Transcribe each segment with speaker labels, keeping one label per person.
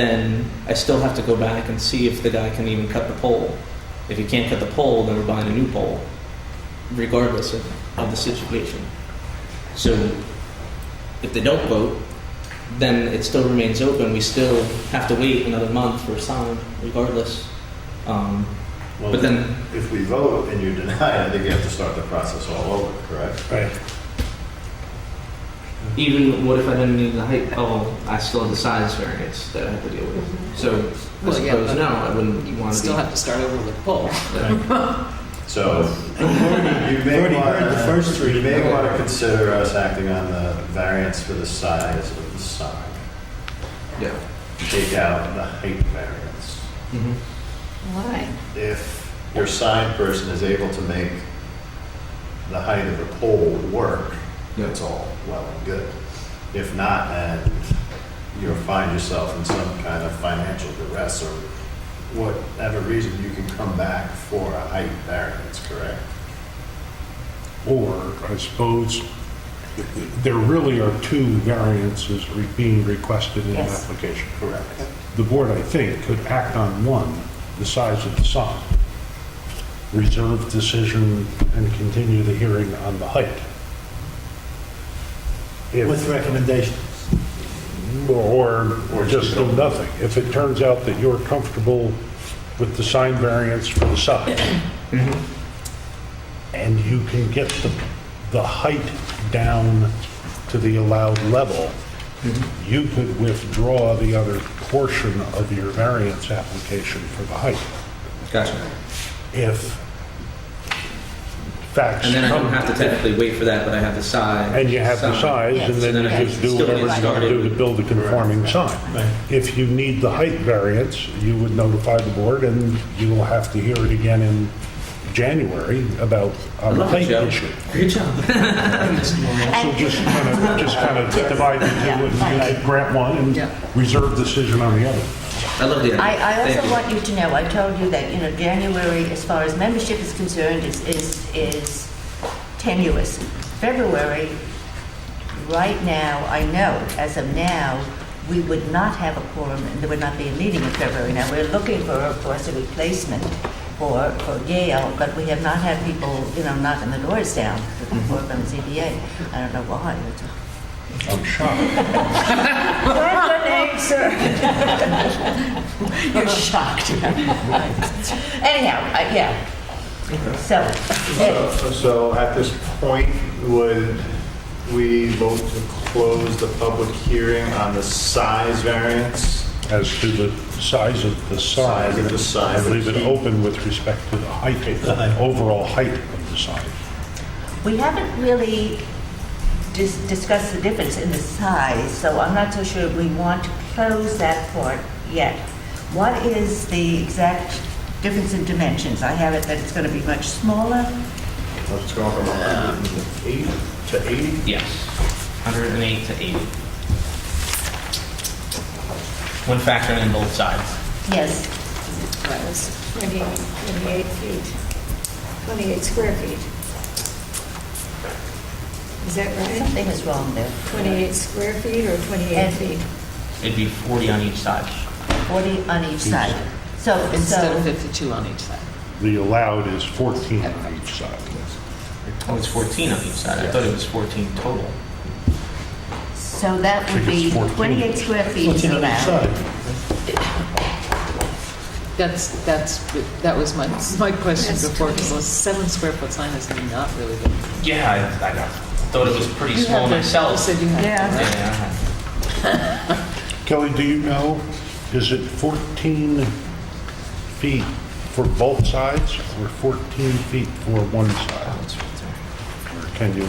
Speaker 1: then I still have to go back and see if the guy can even cut the pole. If he can't cut the pole, then we're buying a new pole, regardless of, of the situation. So if they don't vote, then it still remains open. We still have to wait another month for a sign, regardless. Um,
Speaker 2: Well,
Speaker 1: but then,
Speaker 3: If we vote and you deny it, I think you have to start the process all over, correct?
Speaker 2: Right.
Speaker 1: even what if I didn't need the height? Oh, I still have the size variance that I have to deal with. So I
Speaker 4: Well, yeah,
Speaker 1: suppose
Speaker 4: but
Speaker 1: no, I wouldn't want to
Speaker 4: Still have to start over with pole.
Speaker 3: So you
Speaker 2: We've
Speaker 3: may
Speaker 2: already
Speaker 3: want
Speaker 2: heard the
Speaker 3: to,
Speaker 2: first three.
Speaker 3: you may want to consider us acting on the variance for the size of the sign.
Speaker 1: Yeah.
Speaker 3: Take out the height variance.
Speaker 1: hmm
Speaker 4: Why?
Speaker 3: If your sign person is able to make the height of the pole work,
Speaker 1: Yeah.
Speaker 3: that's all well and good. If not, then you'll find yourself in some kind of financial duress or whatever reason, you can come back for a height variance, correct?
Speaker 2: Or, I suppose, there really are two variances re- being requested in an
Speaker 4: Yes.
Speaker 2: application.
Speaker 3: Correct.
Speaker 2: The board, I think, could act on one, the size of the sign, reserve decision, and continue the hearing on the height. If-
Speaker 5: With recommendations.
Speaker 2: Or, or just do nothing. If it turns out that you're comfortable with the sign variance for the size,
Speaker 5: Mm-hmm.
Speaker 2: and you can get the, the height down to the allowed level,
Speaker 5: Mm-hmm.
Speaker 2: you could withdraw the other portion of your variance application for the height
Speaker 1: Gotcha.
Speaker 2: if facts
Speaker 1: And then I don't
Speaker 2: come.
Speaker 1: have to technically wait for that, but I have the size.
Speaker 2: And you have the size, and then
Speaker 1: I
Speaker 2: you just do
Speaker 1: still get
Speaker 2: whatever you gotta
Speaker 1: started
Speaker 2: do to
Speaker 1: with-
Speaker 2: build a conforming sign. If you need the height variance, you would notify the board, and you will have to hear it again in January about
Speaker 1: I
Speaker 2: um,
Speaker 1: love it,
Speaker 2: height
Speaker 1: Joe.
Speaker 2: issue.
Speaker 1: Great job.
Speaker 2: So just kind of, just kind of divide the
Speaker 6: Yeah,
Speaker 2: two
Speaker 6: fine.
Speaker 2: and grant one
Speaker 4: Yeah.
Speaker 2: and reserve decision on the other.
Speaker 1: I love the idea.
Speaker 6: I, I
Speaker 1: Thank
Speaker 6: also
Speaker 1: you.
Speaker 6: want you to know, I told you that, you know, January, as far as membership is concerned, is, is, is tenuous. February, right now, I know, as of now, we would not have a quorum, and there would not be a meeting in February. Now, we're looking for, of course, a replacement for, for Gail, but we have not had people, you know, knocking the doors down for, from ZBA. I don't know why.
Speaker 2: I'm shocked.
Speaker 6: You're shocked. Anyhow, I- yeah. So, eh,
Speaker 3: So- So at this point, would we vote to close the public hearing on the size variance?
Speaker 2: As to the size of the sign.
Speaker 3: Size of the sign.
Speaker 2: I Leave it open with respect to the height, the overall height of the sign.
Speaker 6: we haven't really dis- discussed the difference in the size, so I'm not so sure we want to close that part yet. What is the exact difference in dimensions? I have it that it's going to be much smaller.
Speaker 3: Let's go from 108 to 80?
Speaker 1: Yes, 108 to 80. When factoring in both sides.
Speaker 6: Yes,
Speaker 7: That was 20 28 feet, 28 square feet. Is that right?
Speaker 6: something is wrong there.
Speaker 7: 28 square feet or 28
Speaker 6: And-
Speaker 7: feet?
Speaker 1: It'd be 40 on each side.
Speaker 6: 40 on each side. So,
Speaker 4: Instead of
Speaker 6: so,
Speaker 4: 52 on each side.
Speaker 2: The allowed is 14 on each side.
Speaker 1: Oh, it's 14 on each side. I thought it was 14 total.
Speaker 6: so that would
Speaker 2: I think
Speaker 6: be
Speaker 2: it's 14.
Speaker 6: 28 square feet is allowed.
Speaker 4: That's, that's, that was my, my question
Speaker 7: That's
Speaker 4: before, because a seven square foot sign is not really big.
Speaker 1: Yeah, I, I know. Thought it was pretty
Speaker 4: You
Speaker 1: small
Speaker 4: have the- You
Speaker 1: myself.
Speaker 4: said you had.
Speaker 1: Yeah, I
Speaker 4: Yeah.
Speaker 1: have.
Speaker 2: Kelly, do you know, is it 14 feet for both sides or 14 feet for one
Speaker 1: Oh,
Speaker 2: side?
Speaker 1: it's right there.
Speaker 2: Or can you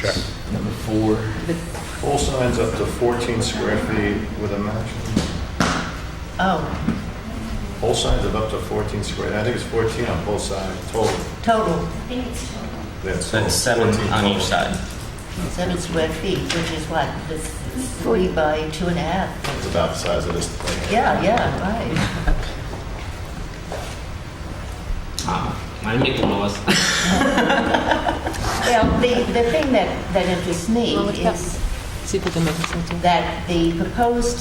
Speaker 2: check?
Speaker 1: Number four.
Speaker 3: All signs up to 14 square feet with a match.
Speaker 6: Oh,
Speaker 3: All signs of up to 14 square, I think it's 14 on both sides total.
Speaker 6: total,
Speaker 3: That's
Speaker 1: So it's seven
Speaker 3: 14
Speaker 1: on
Speaker 3: total.
Speaker 1: each side.
Speaker 6: seven square feet, which is what, this is three by two and a half.
Speaker 3: It's about the size of this thing.
Speaker 6: Yeah, yeah, right.
Speaker 1: I make the laws.
Speaker 6: Well, the, the thing that, that interests me
Speaker 4: Well, look up.
Speaker 6: is,
Speaker 4: see if we can make it so too.
Speaker 6: that the proposed